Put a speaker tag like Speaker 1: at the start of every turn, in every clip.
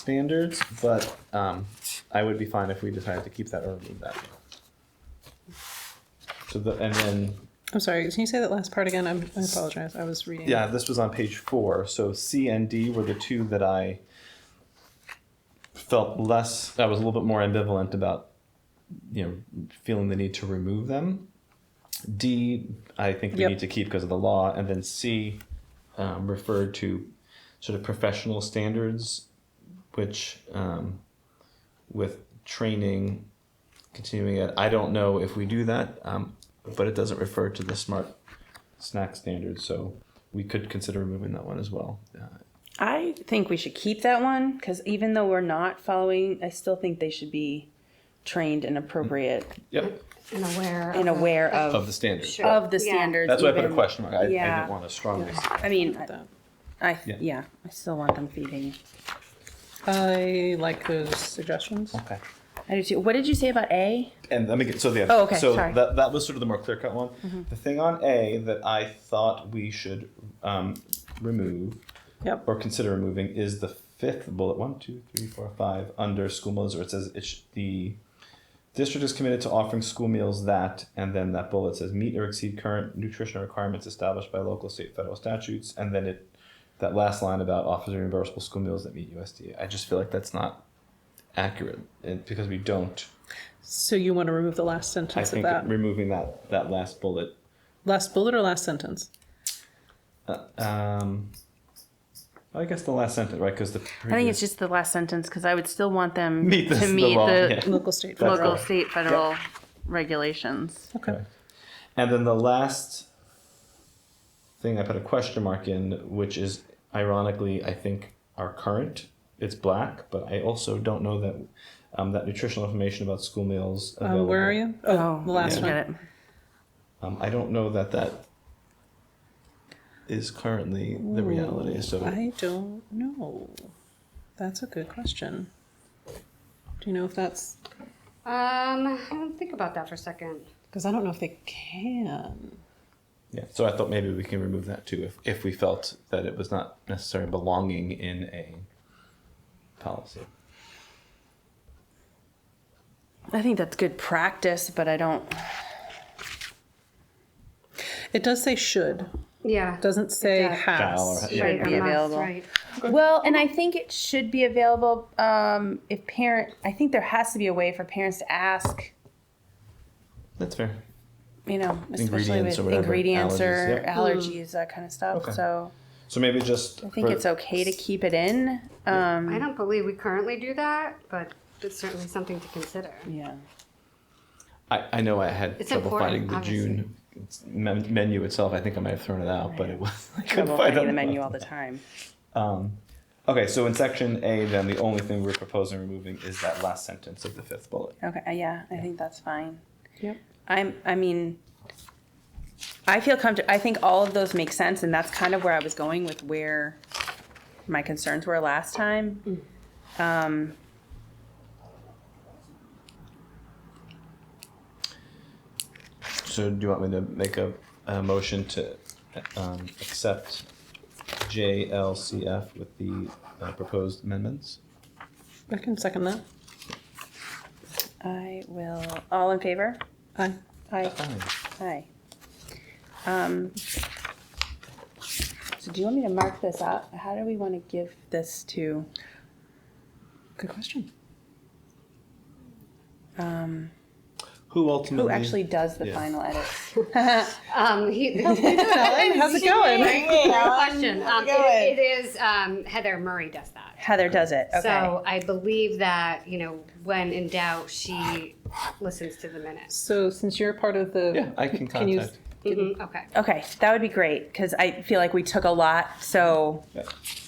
Speaker 1: standards, but um, I would be fine if we decided to keep that or remove that. So the, and then,
Speaker 2: I'm sorry, can you say that last part again? I'm, I apologize. I was reading.
Speaker 1: yeah, this was on page four, so C and D were the two that I felt less, I was a little bit more ambivalent about, you know, feeling the need to remove them. D, I think we
Speaker 2: Yep.
Speaker 1: need to keep because of the law, and then C um, referred to sort of professional standards, which um, with training continuing it. I don't know if we do that, um, but it doesn't refer to the smart snack standards, so we could consider removing that one as well. Uh,
Speaker 3: I think we should keep that one because even though we're not following, I still think they should be trained and appropriate
Speaker 1: yep,
Speaker 4: and aware.
Speaker 3: and
Speaker 4: of the-
Speaker 3: aware of
Speaker 1: of the standards.
Speaker 4: Sure.
Speaker 3: of the
Speaker 4: Yeah.
Speaker 3: standards.
Speaker 1: That's why I put a
Speaker 3: even-
Speaker 1: question mark. I, I
Speaker 3: yeah.
Speaker 1: didn't want to strongly.
Speaker 3: I mean, I,
Speaker 2: that.
Speaker 3: I
Speaker 1: Yeah.
Speaker 3: yeah. I still want them feeding.
Speaker 2: I like those suggestions.
Speaker 1: Okay.
Speaker 3: I do too. What did you say about A?
Speaker 1: And let me get so the
Speaker 3: Oh, okay,
Speaker 1: so
Speaker 3: sorry. Mm-hmm.
Speaker 1: that that was sort of the more clear cut one. The thing on A that I thought we should um, remove
Speaker 2: Yep.
Speaker 1: or consider removing is the fifth bullet one two three four five under school meals where it says it sh- the district is committed to offering school meals that and then that bullet says meet or exceed current nutrition requirements established by local state federal statutes and then it that last line about offers reimbursable school meals that meet USDA I just feel like that's not accurate and because we don't
Speaker 2: So you want to remove the last
Speaker 1: I
Speaker 2: sentence of
Speaker 1: think
Speaker 2: that?
Speaker 1: removing that that last bullet
Speaker 2: last bullet or last sentence?
Speaker 1: um I guess the last sentence right because the
Speaker 3: I think it's just the last sentence because I would still want them
Speaker 1: Meet this-
Speaker 3: to
Speaker 1: the
Speaker 3: meet
Speaker 1: law,
Speaker 3: the,
Speaker 1: yeah.
Speaker 2: Local state.
Speaker 1: That's
Speaker 3: local,
Speaker 1: right.
Speaker 3: state, federal regulations.
Speaker 2: Okay.
Speaker 1: Okay. And then the last thing I put a question mark in, which is ironically, I think our current it's black, but I also don't know that um, that nutritional information about school meals.
Speaker 2: Um, where are you? Oh, the last
Speaker 3: I
Speaker 2: one.
Speaker 3: get it.
Speaker 1: Um, I don't know that that is currently the reality. So
Speaker 2: I don't know. That's a good question. Do you know if that's
Speaker 4: Um, I don't think about that for a second.
Speaker 2: because I don't know if they can.
Speaker 1: yeah, so I thought maybe we can remove that too if if we felt that it was not necessarily belonging in a policy.
Speaker 3: I think that's good practice, but I don't.
Speaker 2: It does say should.
Speaker 4: Yeah.
Speaker 2: Doesn't say
Speaker 4: does.
Speaker 2: has.
Speaker 1: Shall or- yeah.
Speaker 4: right,
Speaker 3: should
Speaker 4: or
Speaker 3: be
Speaker 4: must,
Speaker 3: available.
Speaker 4: Right.
Speaker 3: Well, and I think it should be available um, if parent. I think there has to be a way for parents to ask.
Speaker 1: That's fair.
Speaker 3: You know, especially
Speaker 1: Ingredients
Speaker 3: with
Speaker 1: or whatever,
Speaker 3: ingredients or
Speaker 1: allergies, yeah.
Speaker 3: allergies, that kind of stuff.
Speaker 1: Okay.
Speaker 3: So
Speaker 1: So maybe just
Speaker 3: I think
Speaker 1: for-
Speaker 3: it's okay to keep it in. Um,
Speaker 4: I don't believe we currently do that, but it's certainly something to consider.
Speaker 3: yeah.
Speaker 1: I, I know I had
Speaker 4: It's
Speaker 1: trouble finding
Speaker 4: important,
Speaker 1: the June men- menu itself. I think I might have thrown it out, but it was I couldn't
Speaker 3: Trouble
Speaker 1: find
Speaker 3: finding
Speaker 1: it.
Speaker 3: the menu all the time.
Speaker 1: Um, okay, so in section A, then the only thing we're proposing removing is that last sentence of the fifth bullet.
Speaker 3: Okay, uh, yeah, I think that's fine.
Speaker 2: Yep.
Speaker 3: I'm, I mean, I feel comfortable, I think all of those make sense, and that's kind of where I was going with where my concerns were last time. Um,
Speaker 1: So do you want me to make a, a motion to um, accept JLCF with the uh, proposed amendments?
Speaker 2: I can second that.
Speaker 3: I will, all in favor?
Speaker 2: Aye.
Speaker 3: Aye,
Speaker 1: Aye.
Speaker 3: aye. Um, so do you want me to mark this up? How do we want to give this to,
Speaker 2: Good question.
Speaker 3: um,
Speaker 1: Who ultimately?
Speaker 3: who actually does the
Speaker 1: Mm-hmm. Yeah.
Speaker 3: final edits?
Speaker 4: Um, he,
Speaker 2: Ellen, how's it going?
Speaker 4: Good question. Um, it, it is um, Heather Murray does that.
Speaker 3: Heather does it, okay.
Speaker 4: So I believe that you know when in doubt, she listens to the minutes.
Speaker 2: So since you're part of the
Speaker 1: Yeah, I can
Speaker 2: you-
Speaker 1: contact.
Speaker 2: Mm-hmm.
Speaker 4: Mhm, Okay.
Speaker 3: Okay, that would be great, because I feel like we took a lot, so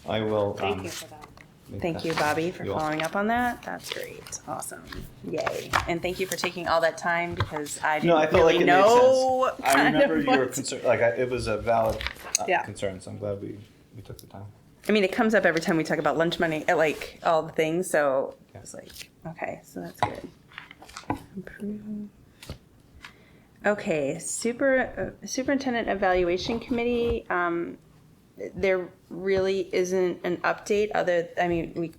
Speaker 1: I will. um,
Speaker 4: Thank you for that.
Speaker 1: make
Speaker 3: thank
Speaker 1: that-
Speaker 3: you, Bobby, for
Speaker 1: You're welcome.
Speaker 3: following up on that. That's great, awesome, yay. And thank you for taking all that time, because I
Speaker 1: No, I
Speaker 3: didn't
Speaker 1: felt like
Speaker 3: really
Speaker 1: it made
Speaker 3: know.
Speaker 1: sense. I
Speaker 3: kind
Speaker 1: remember
Speaker 3: of
Speaker 1: your
Speaker 3: what-
Speaker 1: concern, like I, it was a valid uh,
Speaker 3: Yeah.
Speaker 1: concern, so I'm glad we, we took the time.
Speaker 3: I mean, it comes up every time we talk about lunch money, uh, like, all the things, so
Speaker 1: Yeah.
Speaker 3: it's like, okay, so that's good. Approve. Okay, super, uh, superintendent evaluation committee, um, there really isn't an update other, I mean, we